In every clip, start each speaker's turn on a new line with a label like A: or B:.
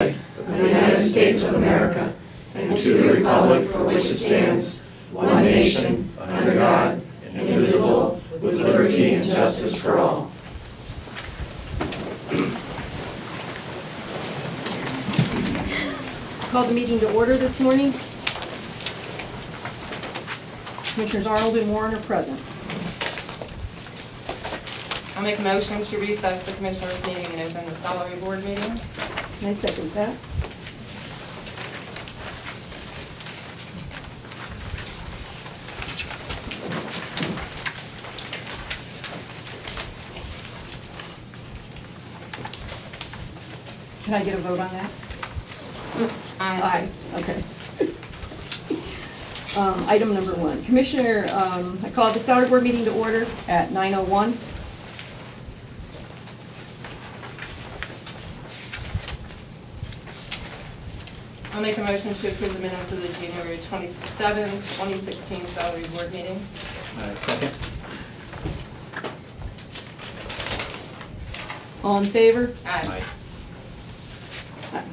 A: flag of the United States of America and to the republic for which it stands, one nation, under God, indivisible, with liberty and justice for all.
B: Call the meeting to order this morning. Commissioners Arnold and Warren are present.
C: I'll make a motion to recess the commissioners' meeting and open the salary board meeting.
B: Can I second that? Can I get a vote on that?
C: Aye.
B: Okay. Um, Item number one, Commissioner, um, I call the salary board meeting to order at 9:01.
C: I'll make a motion to approve the minutes of the January 27, 2016 salary board meeting.
D: Uh, Second?
B: All in favor? Uh,
C: Aye.
B: Aye.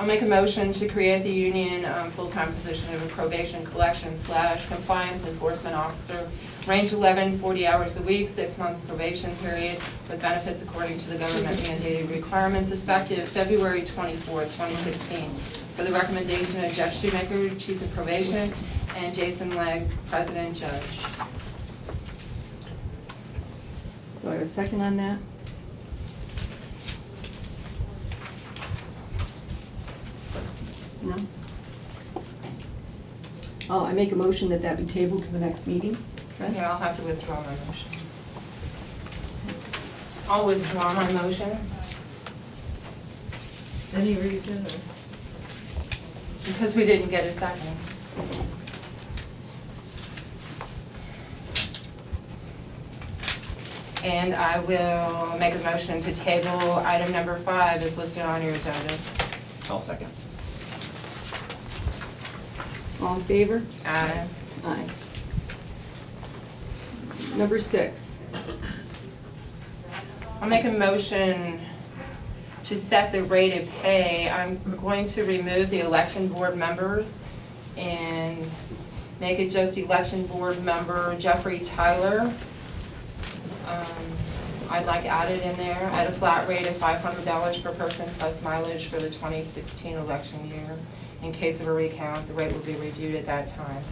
C: I'll make a motion to create the union um, full-time position of a probation collection slash compliance enforcement officer, range 11, 40 hours a week, six months probation period, with benefits according to the government mandated requirements effective February 24, 2016. For the recommendation of Jeff Shoemaker, Chief of Probation, and Jason Legg, President Judge.
B: Do I have a second on that? No? Oh, I make a motion that that be tabled to the next meeting.
C: Okay, I'll have to withdraw my motion. I'll withdraw my motion.
E: Any reason
C: Because we didn't get a second. And I will make a motion to table item number five is listed on your agenda.
D: I'll second.
B: All in favor?
C: Aye.
B: Aye. Number six,
C: I'll make a motion to set the rate of pay. I'm going to remove the election board members and make it just election board member Jeffrey Tyler. Um, I'd like added in there at a flat rate of five hundred dollars per person plus mileage for the twenty sixteen election year. In case of a recount, the rate will be reviewed at that time.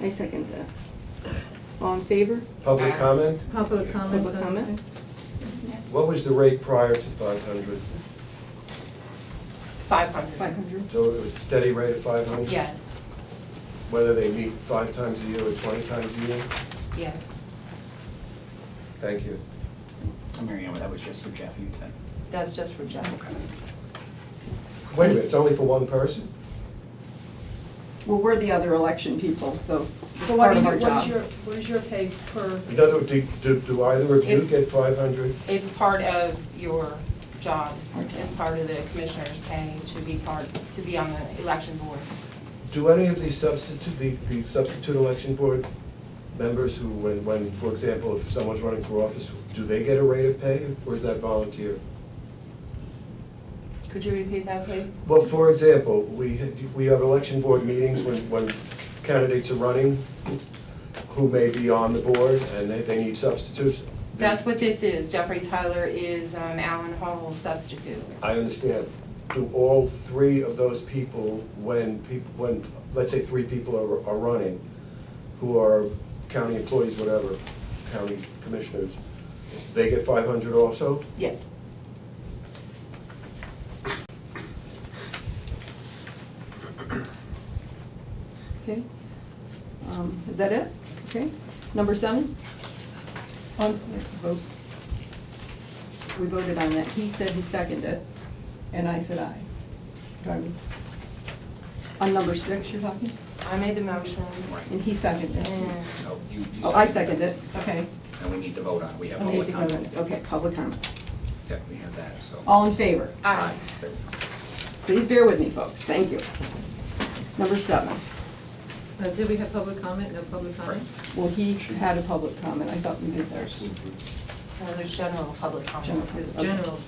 B: I second that. All in favor?
F: Public comment?
E: public comments
B: Public
E: on
B: comment?
E: things?
F: What was the rate prior to 500?
C: Five hundred.
B: Five hundred?
F: So it was steady rate of 500?
C: Yes,
F: Whether they meet five times a year or 20 times a year?
C: yes.
F: Thank you.
D: Mary Ann, that was just for Jeff, you said.
C: That's just for Jeff.
F: Wait a minute, it's only for one person?
B: Well, we're the other election people, so it's
E: So what
B: part
E: are
B: of
E: you,
B: our
E: what is
B: job.
E: your, what is your pay per,
F: In other words, do- do do either of you
C: It's-
F: get 500?
C: It's part of your job, it's part of the commissioner's pay to be part, to be on the election board.
F: Do any of the substitute, the the substitute election board members who, when, when, for example, if someone's running for office, do they get a rate of pay or is that volunteer?
C: Could you repeat that, please?
F: Well, for example, we, we have election board meetings when, when candidates are running who may be on the board and they, they need substitutes.
C: That's what this is, Jeffrey Tyler is um, Alan Hall's substitute.
F: I understand. Do all three of those people, when people, when, let's say three people are, are running, who are county employees, whatever, county commissioners, they get five hundred also?
C: Yes.
B: Okay. Um, Is that it? Okay. Number seven? Oh, I'm sorry, vote. We voted on that. He said he seconded it, and I said aye. Do I- On number six, you're talking?
C: I made the motion.
B: And he seconded it.
C: And
D: Oh, you, you.
B: Oh, I seconded it, okay.
D: And we need to vote on it, we have
B: I need
D: public
B: to go in.
D: comment.
B: Okay, public comment.
D: Yeah, we have that, so.
B: All in favor?
C: Aye.
D: There we go.
B: Please bear with me, folks. Thank you. Number seven.
E: uh, did we have public comment, no public comment?
B: Well, he had a public comment. I thought we did theirs.
C: Well, uh, there's general public comment.
B: General.
E: It's general